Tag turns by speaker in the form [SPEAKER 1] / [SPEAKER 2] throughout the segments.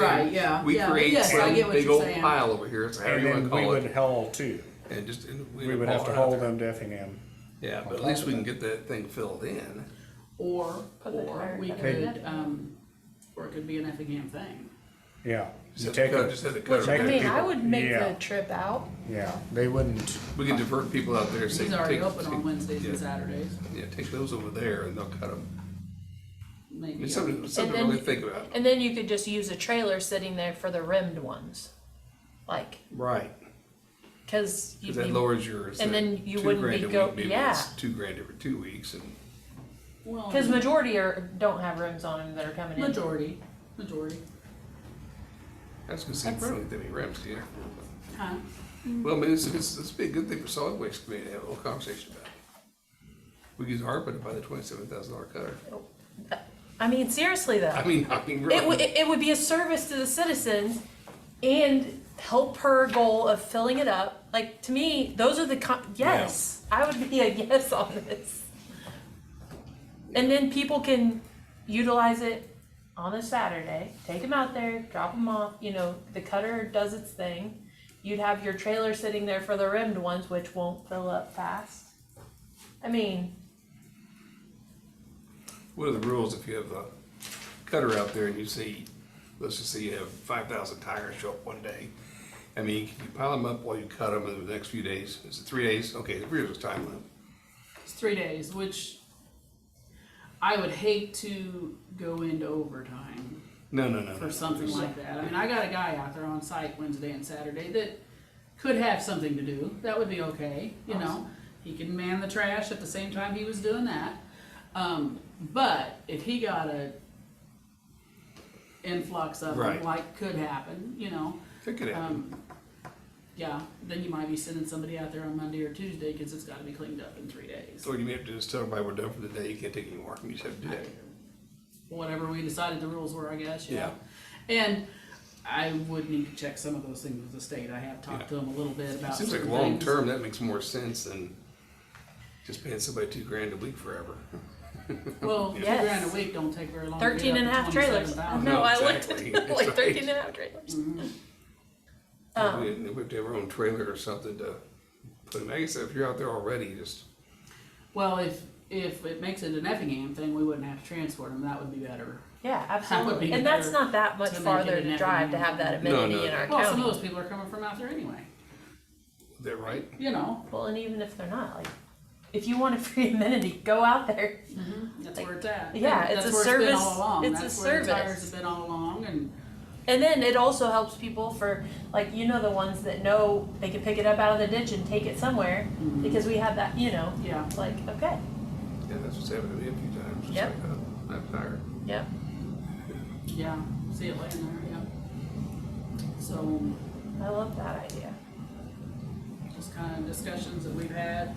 [SPEAKER 1] Right, yeah,
[SPEAKER 2] We
[SPEAKER 1] yeah,
[SPEAKER 2] create
[SPEAKER 1] yes, I
[SPEAKER 2] some
[SPEAKER 1] get what
[SPEAKER 2] big
[SPEAKER 1] you're
[SPEAKER 2] old
[SPEAKER 1] saying.
[SPEAKER 2] pile over here, so however
[SPEAKER 3] And
[SPEAKER 2] you wanna
[SPEAKER 3] then we
[SPEAKER 2] call
[SPEAKER 3] would
[SPEAKER 2] it,
[SPEAKER 3] haul too.
[SPEAKER 2] and just. and
[SPEAKER 3] We would have to
[SPEAKER 2] haul it out there.
[SPEAKER 3] haul them to Effingham.
[SPEAKER 2] Yeah,
[SPEAKER 3] on
[SPEAKER 2] but at
[SPEAKER 3] top
[SPEAKER 2] least
[SPEAKER 3] of
[SPEAKER 2] we can
[SPEAKER 3] it.
[SPEAKER 2] get that thing filled in.
[SPEAKER 1] Or,
[SPEAKER 4] Put the
[SPEAKER 1] or
[SPEAKER 4] card
[SPEAKER 1] we
[SPEAKER 4] back
[SPEAKER 1] could,
[SPEAKER 4] in.
[SPEAKER 1] um, or it could be an Effingham thing.
[SPEAKER 3] Yeah.
[SPEAKER 2] Just
[SPEAKER 3] You
[SPEAKER 2] have to
[SPEAKER 3] take
[SPEAKER 2] cut,
[SPEAKER 3] it-
[SPEAKER 2] just have to cut
[SPEAKER 3] Take
[SPEAKER 4] I
[SPEAKER 2] it.
[SPEAKER 4] mean, I would make
[SPEAKER 3] Yeah.
[SPEAKER 4] the trip out.
[SPEAKER 3] Yeah, they wouldn't,
[SPEAKER 2] We can divert people out there, say,
[SPEAKER 1] He's already
[SPEAKER 2] take,
[SPEAKER 1] open on
[SPEAKER 2] take-
[SPEAKER 1] Wednesdays and
[SPEAKER 2] yeah.
[SPEAKER 1] Saturdays,
[SPEAKER 2] yeah, take those over there and they'll cut them.
[SPEAKER 1] maybe.
[SPEAKER 2] It's something, it's something to
[SPEAKER 4] then
[SPEAKER 2] really
[SPEAKER 4] you-
[SPEAKER 2] think about.
[SPEAKER 4] And then you could just use a trailer sitting there for the rimmed ones. Like,
[SPEAKER 2] Right.
[SPEAKER 4] cause you'd
[SPEAKER 2] Cause that
[SPEAKER 4] be-
[SPEAKER 2] lowers yours.
[SPEAKER 4] and
[SPEAKER 2] that
[SPEAKER 4] then you
[SPEAKER 2] two
[SPEAKER 4] wouldn't
[SPEAKER 2] grand
[SPEAKER 4] be
[SPEAKER 2] a
[SPEAKER 4] go-
[SPEAKER 2] week, maybe
[SPEAKER 4] yeah.
[SPEAKER 2] it's Two grand every two weeks and
[SPEAKER 1] Well,
[SPEAKER 4] Cause majority are, don't have rims on them that are coming in.
[SPEAKER 1] majority, majority,
[SPEAKER 2] that's gonna seem friendly to me, Rams, do you?
[SPEAKER 1] huh?
[SPEAKER 2] Well, I mean, it's, it's, it's be a good thing for solid waste committee to have a whole conversation about. it. We could ARPA to buy the twenty-seven thousand dollar cutter.
[SPEAKER 4] I mean, seriously though.
[SPEAKER 2] I mean, I mean,
[SPEAKER 4] It, w-
[SPEAKER 2] really.
[SPEAKER 4] it, it would be a service to the citizens and help her goal of filling it up. Like, to me, those are the, con- yes, I would be a yes on this. And then people can utilize it on a Saturday, take them out there, drop them off, you know, the cutter does its thing. You'd have your trailer sitting there for the rimmed ones, which won't fill up fast. I mean,
[SPEAKER 2] What are the rules if you have a cutter out there and you see, let's just say you have five thousand tires show up one day? I mean, can you pile them up while you cut them in the next few days? Is it three days? Okay, three days is time limit.
[SPEAKER 1] It's three days, which I would hate to go into overtime
[SPEAKER 2] No, no, no. no,
[SPEAKER 1] for
[SPEAKER 2] no,
[SPEAKER 1] something
[SPEAKER 2] there's-
[SPEAKER 1] like that. I mean, I got a guy out there on site Wednesday and Saturday that could have something to do. That would be okay, you know? He can man the trash at the same time he was doing that. Um, but if he got a influx of them,
[SPEAKER 2] Right.
[SPEAKER 1] like could happen, you know?
[SPEAKER 2] That could happen.
[SPEAKER 1] Um, yeah, then you might be sending somebody out there on Monday or Tuesday, cause it's gotta be cleaned up in three days.
[SPEAKER 2] Or you may have to just tell everybody we're done for the day, you can't take any more, you just have to do that.
[SPEAKER 1] whatever we decided the rules were, I guess, yeah. And I would need to check some of those things with the state, I have talked to them a little bit about
[SPEAKER 2] Seems like
[SPEAKER 1] certain
[SPEAKER 2] long
[SPEAKER 1] things.
[SPEAKER 2] term, that makes more sense than just paying somebody two grand a week forever.
[SPEAKER 1] Well, two
[SPEAKER 4] Yes.
[SPEAKER 1] grand a week don't take very long. to get
[SPEAKER 4] 13 and a
[SPEAKER 1] up to
[SPEAKER 4] half trailers.
[SPEAKER 1] 27,000.
[SPEAKER 4] No, I looked
[SPEAKER 2] exactly.
[SPEAKER 4] at like
[SPEAKER 2] Right.
[SPEAKER 4] 13 and a half trailers.
[SPEAKER 2] We
[SPEAKER 4] Oh.
[SPEAKER 2] we have to have our own trailer or something to put them, I guess if you're out there already, just,
[SPEAKER 1] Well, if, if it makes it an Effingham thing, we wouldn't have to transport them, that would be better.
[SPEAKER 4] Yeah,
[SPEAKER 1] would be
[SPEAKER 4] absolutely. And that's
[SPEAKER 1] better
[SPEAKER 4] not that much
[SPEAKER 1] to make it
[SPEAKER 4] farther
[SPEAKER 1] an
[SPEAKER 4] to drive to
[SPEAKER 1] Effingham.
[SPEAKER 4] have that
[SPEAKER 2] No,
[SPEAKER 4] amenity
[SPEAKER 2] no.
[SPEAKER 4] in our
[SPEAKER 1] Well, some of
[SPEAKER 4] county.
[SPEAKER 1] those people are coming from out there anyway,
[SPEAKER 2] is that right?
[SPEAKER 1] you know,
[SPEAKER 4] Well, and even if they're not, like, if you want a free amenity, go out there.
[SPEAKER 1] that's where it's at.
[SPEAKER 4] Yeah, it's
[SPEAKER 1] That's
[SPEAKER 4] a
[SPEAKER 1] where been
[SPEAKER 4] service-
[SPEAKER 1] all along.
[SPEAKER 4] it's a
[SPEAKER 1] That's where the
[SPEAKER 4] service.
[SPEAKER 1] Tires have been all along and,
[SPEAKER 4] And then it also helps people for, like, you know, the ones that know they can pick it up out of the ditch and take it somewhere because we have that, you know,
[SPEAKER 1] yeah,
[SPEAKER 4] it's like, okay,
[SPEAKER 2] Yeah, that's what's happened to me a few times, it's
[SPEAKER 4] Yep.
[SPEAKER 2] like, uh, I'm tired.
[SPEAKER 4] yep.
[SPEAKER 1] yeah, see it laying there, yeah. So,
[SPEAKER 4] I love that idea.
[SPEAKER 1] just kind of discussions that we've had.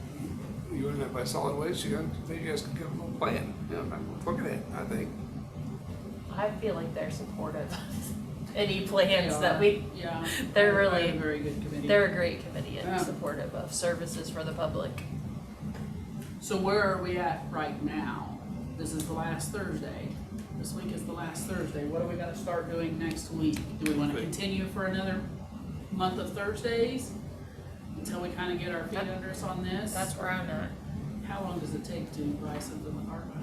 [SPEAKER 2] You run that by solid waste, you got, I think you guys can come up with a plan, you know, I'm looking at, it, I think.
[SPEAKER 4] I feel like they're supportive of any plans that
[SPEAKER 1] They
[SPEAKER 4] we,
[SPEAKER 1] are, Yeah.
[SPEAKER 4] they're
[SPEAKER 1] They're
[SPEAKER 4] really-
[SPEAKER 1] a Very good committee.
[SPEAKER 4] they're a great committee
[SPEAKER 1] Yeah.
[SPEAKER 4] and supportive of services for the public.
[SPEAKER 1] So where are we at right now? This is the last Thursday. This week is the last Thursday. What do we gotta start doing next week? Do we wanna
[SPEAKER 2] Good.
[SPEAKER 1] continue for another month of Thursdays? Until we kinda get our feet under us on this?
[SPEAKER 4] That's where I'm at.
[SPEAKER 1] How long does it take to buy something with ARPA?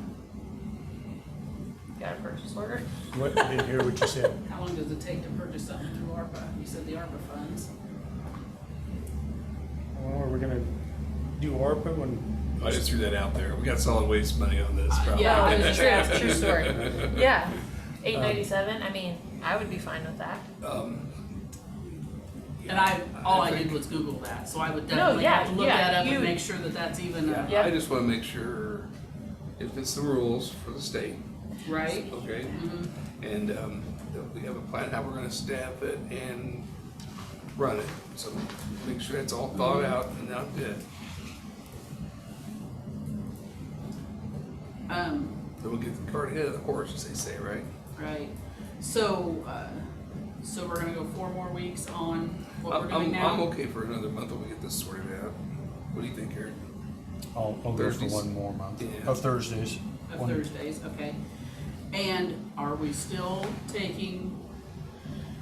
[SPEAKER 4] Got a purchase order?
[SPEAKER 3] what, I didn't hear what you said.
[SPEAKER 1] How long does it take to purchase something through ARPA? You said the ARPA funds.
[SPEAKER 3] Well, are we Oh, gonna do ARPA when,
[SPEAKER 2] I just threw that out there, we got solid waste money on this, probably.
[SPEAKER 1] yeah,
[SPEAKER 4] No, it's true, it's true story. Yeah, eight ninety-seven, I mean, I would be fine with that.
[SPEAKER 2] Um,
[SPEAKER 1] And I, all I did
[SPEAKER 2] think-
[SPEAKER 1] was Google that, so I would
[SPEAKER 4] No,
[SPEAKER 1] definitely
[SPEAKER 4] yeah,
[SPEAKER 1] have to look
[SPEAKER 4] yeah,
[SPEAKER 1] that up
[SPEAKER 4] you-
[SPEAKER 1] and make sure that that's even, a-
[SPEAKER 4] Yeah.
[SPEAKER 2] I just wanna make sure, if it's the rules for the state,
[SPEAKER 1] right?
[SPEAKER 2] okay? And, um, that we have a plan how we're gonna staff it and run it, so make sure that's all thought
[SPEAKER 1] Mm-hmm.
[SPEAKER 2] out and out there.
[SPEAKER 1] Um,
[SPEAKER 2] Then we'll get the cart ahead of the horse, as they say, right?
[SPEAKER 1] right, so, uh, so we're gonna go four more weeks on what we're
[SPEAKER 2] I'm,
[SPEAKER 1] doing
[SPEAKER 2] I'm, I'm
[SPEAKER 1] now?
[SPEAKER 2] okay for another month when we get this sorted out. What do you think, Eric?
[SPEAKER 3] I'll, I'll go for
[SPEAKER 2] Thursdays.
[SPEAKER 3] one more month,
[SPEAKER 2] Yeah.
[SPEAKER 3] of Thursdays.
[SPEAKER 1] Of
[SPEAKER 3] One-
[SPEAKER 1] Thursdays, okay. And are we still taking